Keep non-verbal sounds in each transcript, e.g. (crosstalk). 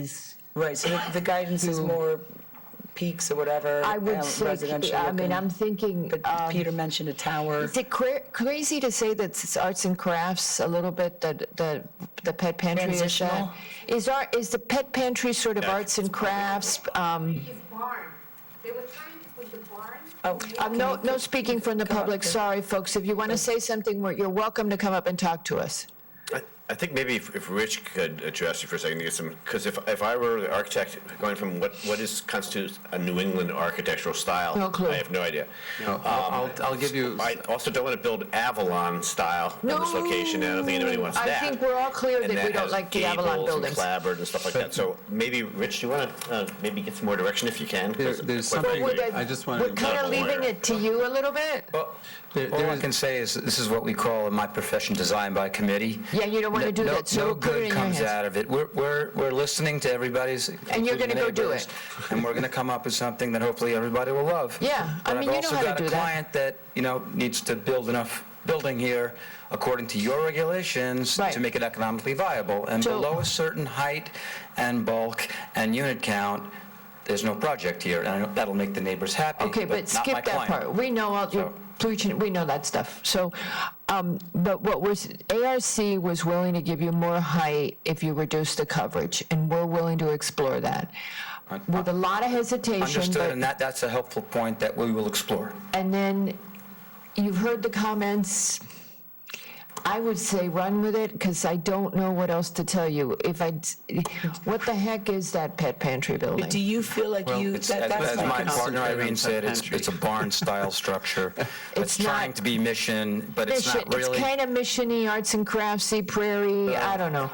is, right, so the- the guidance is more peaks or whatever. I would um, say, residential I mean, looking. I'm thinking, But um, Peter mentioned a tower. is it cra- crazy to say that it's arts and crafts a little bit, that, that the pet pantry is that? Transitional? Is our, is the pet pantry sort of arts and crafts? Um, His barn. They were trying to put the barn. Oh, I'm no, no speaking from the Come up public, to- sorry, folks. If you want to say something, we're- you're welcome to come up and talk to us. I I think maybe if if Rich could address you for a second, to get some, because if, if I were the architect, going from what, what is constitutes a New England architectural style? No clue. I have no idea. No, I'll, I'll- I'll give you, I also don't want to build Avalon style in this location, and I don't think anybody wants No, I that. think we're all clear And that we don't has like the Avalon gables and buildings. clapboard and stuff like that, so maybe, Rich, do you want to maybe get some more direction if you can? 'Cause There- there's quite something- frankly- I just wanted We're to- kind I'm a of leaving lawyer. it to you a little bit? there- All there I is- can say is, this is what we call in my profession, design by committee. Yeah, you don't wanna No- do no- that, so No put it in good your comes hands. out of it. We're, we're, we're listening to everybody's. And you're gonna including go do neighbors, And we're going to come up with something that hopefully everybody will love. Yeah, I mean, you know how to But I've also got do a that. client that, you know, needs to build enough building here according to your regulations Right. to make it economically viable. And So- below a certain height and bulk and unit count, there's no project here. And I know that'll make the neighbors happy, Okay, but not my skip that client. part. We know all your So- pollution, we know that stuff. So, um, but what was, ARC was willing to give you more height if you reduce the coverage, and we're willing to explore that. With a lot of hesitation, Understood, and but, that, that's a helpful point that we will explore. and then you've heard the comments. I would say run with it, because I don't know what else to tell you. If I, what the heck is that pet pantry building? But do you feel like you, It's, that- as that's as my not partner enough? concentrate on Irene said, it's, pet it's a barn-style structure. (laughs) It's It's trying not- to be mission, but it's Mission- not really. Uh, kind of missiony, arts and craftsy, prairie, I don't know.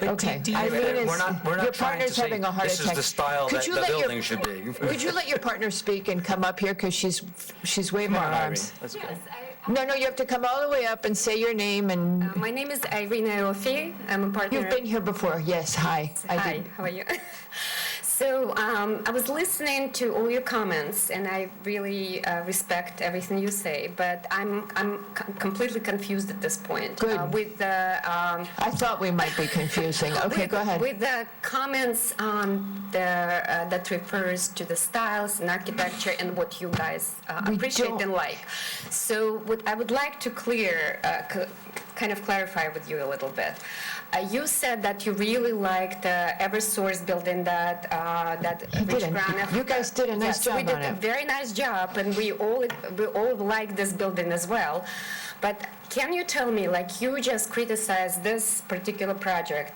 Okay. do you- I mean, Wait, it's- We're not, we're your not trying to partner's say, having a heart this is attack. the style Could that you the let your- building should be. Could you let your partner speak and come up here, because she's, she's waving her on, Irene. (laughs) arms? Yes, I- No, no, you have to come all the way up and say your name, and uh, my name is Irina Ophir. I'm a partner. Mm-hmm. you've been here before, yes, hi. I Hi, did. how are you? (laughs) so um, I was listening to all your comments, and I really uh, respect everything you say. But I'm I'm com- completely confused at this point Good. Uh, with the. Um, I thought we might be (laughs) confusing, okay, with, go ahead. With the comments on the uh, that refers to the styles and architecture and what you guys uh, We appreciate don't- and like. So what I would like to clear, uh, c- kind of clarify with you a little bit. Uh, you said that you really liked the EverSource building that uh, that He Rich did a- Graniff- you guys did a nice Yes, we job on did a it. very nice job, and we all we all like this building as well. But can you tell me, like you just criticized this particular project,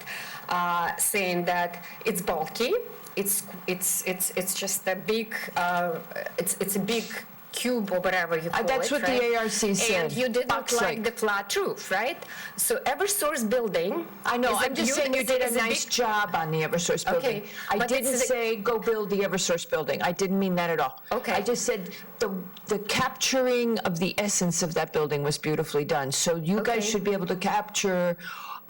uh, saying that it's bulky, it's it's it's it's just a big uh, it's it's a big cube or whatever you call Uh, that's it, what the right? ARC said, And you didn't box-like. like the flat roof, right? So EverSource building. I know, is a I'm just beaut- saying you is a- did a is big nice job on the Eversource building. Okay, I but didn't it's a- say, go build the Eversource building. I didn't mean that at all. Okay. I just said, the, the capturing of the essence of that building was beautifully done. So you guys Okay. should be able to capture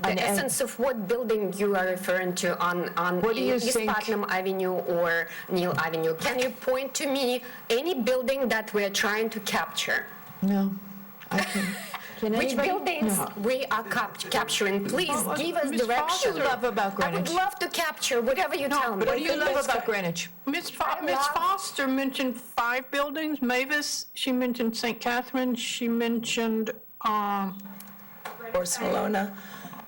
an, The essence of what building you are referring to on, on E What do you East think- Putnam Avenue or Neil Avenue? Can you point to me any building that we're trying to capture? no, I (laughs) can't. Can Which anybody- buildings No. we are cap- capturing? Please Well, give us Ms. Fox direction. would love about I would Greenwich. love to capture whatever you tell me. What do you love about Greenwich? Ms. Fo- Ms. love- Foster mentioned five buildings, Mavis, she mentioned St. Catherine, she mentioned um, Barcelona?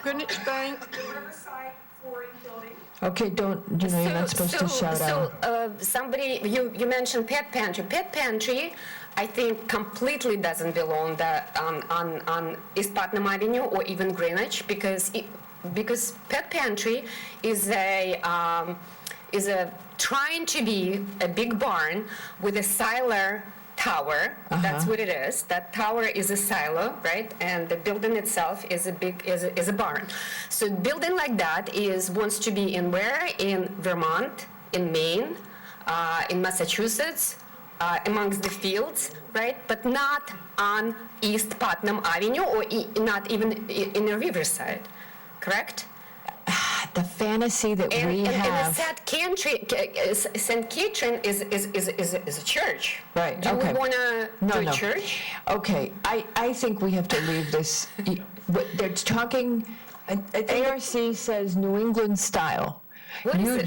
Greenwich Bank. Riverside flooring building. Okay, don't, you know, you're not supposed to shout out. So, uh, somebody, you, you mentioned pet pantry. Pet pantry, I think, completely doesn't belong the, on, on, on East Putnam Avenue or even Greenwich because it, because pet pantry is a um, is a trying to be a big barn with a silo tower. Uh-huh. That's what it is. That tower is a silo, right? And the building itself is a big is a, is a barn. So building like that is wants to be in where in Vermont, in Maine, uh, in Massachusetts, uh, amongst the fields, right? But not on East Putnam Avenue or e- not even i- in a riverside, correct? The fantasy that And, we and, and have, St. Catherine, St. Catherine is, is, is, is, is a church. Right, Do okay. we want to No, do a no. church? okay, I, I think we have to leave this, y- what- they're talking, I- I think- ARC says New England style. What is You- it?